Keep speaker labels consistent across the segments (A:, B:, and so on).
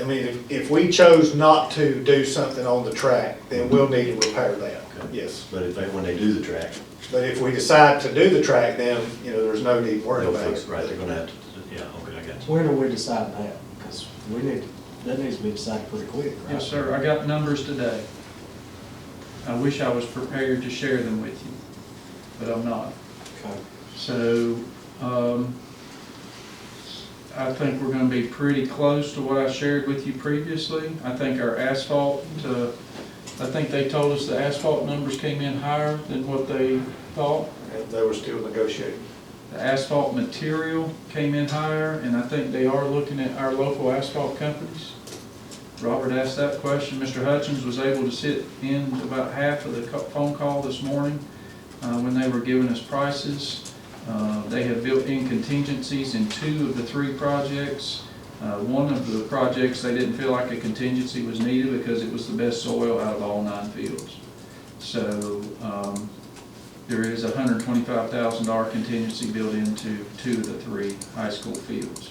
A: I mean, if, if we chose not to do something on the track, then we'll need to repair that, yes.
B: But if they, when they do the track,
A: But if we decide to do the track, then, you know, there's no need worrying
B: they'll
A: about
B: fix
A: it.
B: it, right, they're gonna have to, yeah, okay, I got you.
C: When are we deciding that? Because we need, that needs to be decided pretty quick, right?
D: Yes, sir, I got numbers today. I wish I was prepared to share them with you, but I'm not.
C: Okay.
D: So, um, I think we're gonna be pretty close to what I shared with you previously. I think our asphalt, uh, I think they told us the asphalt numbers came in higher than what they thought.
A: And they were still negotiating.
D: The asphalt material came in higher, and I think they are looking at our local asphalt companies. Robert asked that question. Mr. Hutchins was able to sit in about half of the co- phone call this morning uh, when they were giving us prices. Uh, They have built in contingencies in two of the three projects. Uh, One of the projects, they didn't feel like a contingency was needed because it was the best soil out of all nine fields. So um, there is a hundred twenty-five thousand dollar contingency built into two of the three high school fields.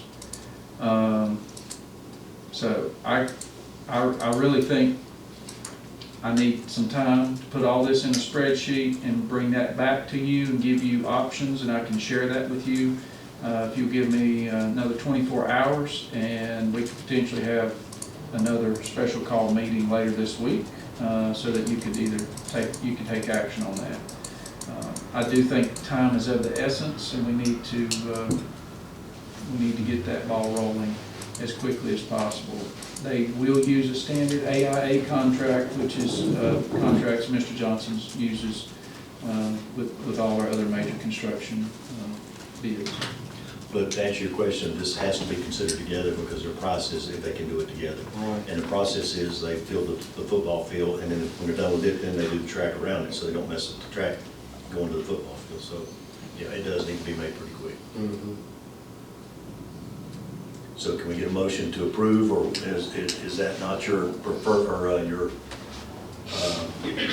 D: Um, So I, I, I really think I need some time to put all this in a spreadsheet and bring that back to you and give you options, and I can share that with you. uh, If you give me uh, another twenty-four hours, and we could potentially have another special call meeting later this week, uh, so that you could either take, you can take action on that. Uh, I do think time is of the essence, and we need to, uh, we need to get that ball rolling as quickly as possible. They will use a standard AIA contract, which is uh, contracts Mr. Johnson uses um, with with all our other major construction um, bids.
B: But to answer your question, this has to be considered together because their process, if they can do it together.
C: Right.
B: And the process is they fill the, the football field and then when they're done with it, then they do the track around it, so they don't mess up the track going to the football field. So, yeah, it does need to be made pretty quick. So can we get a motion to approve or is, is is that not your prefer, or uh, your uh,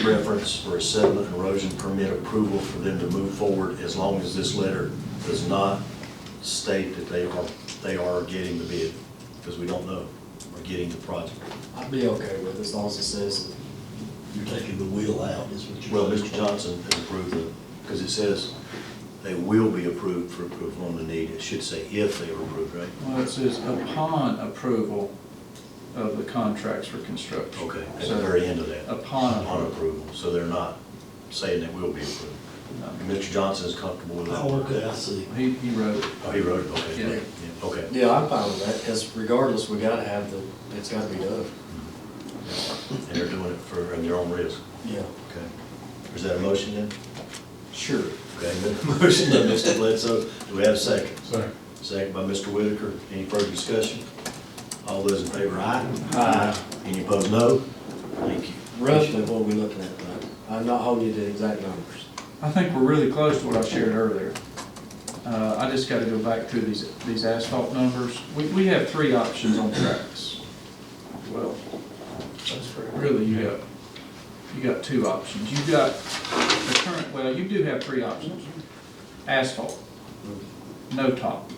B: reference for a sediment and erosion permit approval for them to move forward as long as this letter does not state that they are, they are getting the bid, because we don't know, or getting the project.
C: I'd be okay with it as long as it says,
E: You're taking the wheel out, is what you're.
B: Well, Mr. Johnson has approved the, because it says they will be approved for approval on the need. It should say if they are approved, right?
D: Well, it says upon approval of the contracts for construction.
B: Okay, at the
D: So
B: very end of that.
D: upon
B: On
D: approval.
B: approval, so they're not saying they will be approved. And Mr. Johnson is comfortable with that?
E: Oh, okay, I see.
D: He he wrote it.
B: Oh, he wrote it, okay.
D: Yeah.
B: Yeah, Okay.
C: yeah, I'm fine with that, because regardless, we gotta have the, it's gotta be done.
B: And they're doing it for, at their own risk.
C: Yeah.
B: Okay. Is that a motion then?
C: Sure.
B: Okay, motion by Mr. Bledsoe, do we have a second? Second. Second by Mr. Whitaker, any further discussion? All those in favor, aye? Aye. Any opposed, no? Thank you.
C: Uh, Roughly what we looking at, though. I'm not holding you to exact numbers.
D: I think we're really close to what I shared earlier. Uh, I just gotta go back through these, these asphalt numbers. We, we have three options on tracks. Well,
A: That's correct.
D: really, you got, you got two options. You've got the current, well, you do have three options. Asphalt, no top.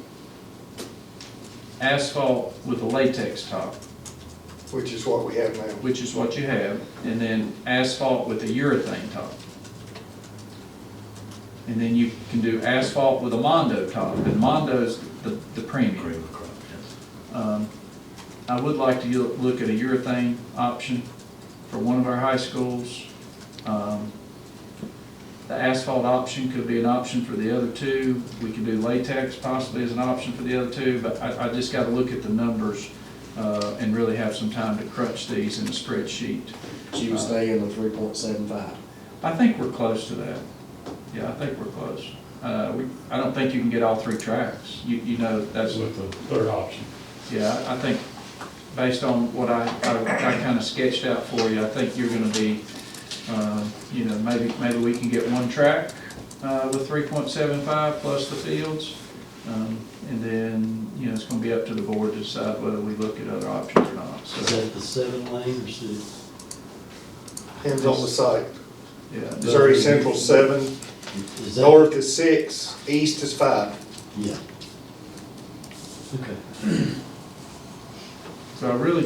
D: Asphalt with a latex top,
A: Which is what we have now.
D: which is what you have, and then asphalt with a urethane top. And then you can do asphalt with a Mondo top, and Mondo's the, the
B: Agree
D: premium.
B: with Crump, yes.
D: Um, I would like to yo- look at a urethane option for one of our high schools. Um, The asphalt option could be an option for the other two. We could do latex possibly as an option for the other two, but I, I just gotta look at the numbers, uh, and really have some time to crunch these in a spreadsheet.
C: So you would
D: Uh,
C: stay in the three point seven five.
D: I think we're close to that. Yeah, I think we're close. Uh, we, I don't think you can get all three tracks. You, you know, that's,
F: with the third option.
D: yeah, I think, based on what I, I, I kinda sketched out for you, I think you're gonna be, um, you know, maybe, maybe we can get one track, uh, with three point seven five plus the fields. Um, and then, you know, it's gonna be up to the board to decide whether we look at other options or not,
E: Is
D: so,
E: that the seven lane or six?
A: Depends on the site.
D: yeah.
A: Missouri Central seven,
E: Is that-
A: north is six, east is five.
E: Yeah. Okay.
D: So I really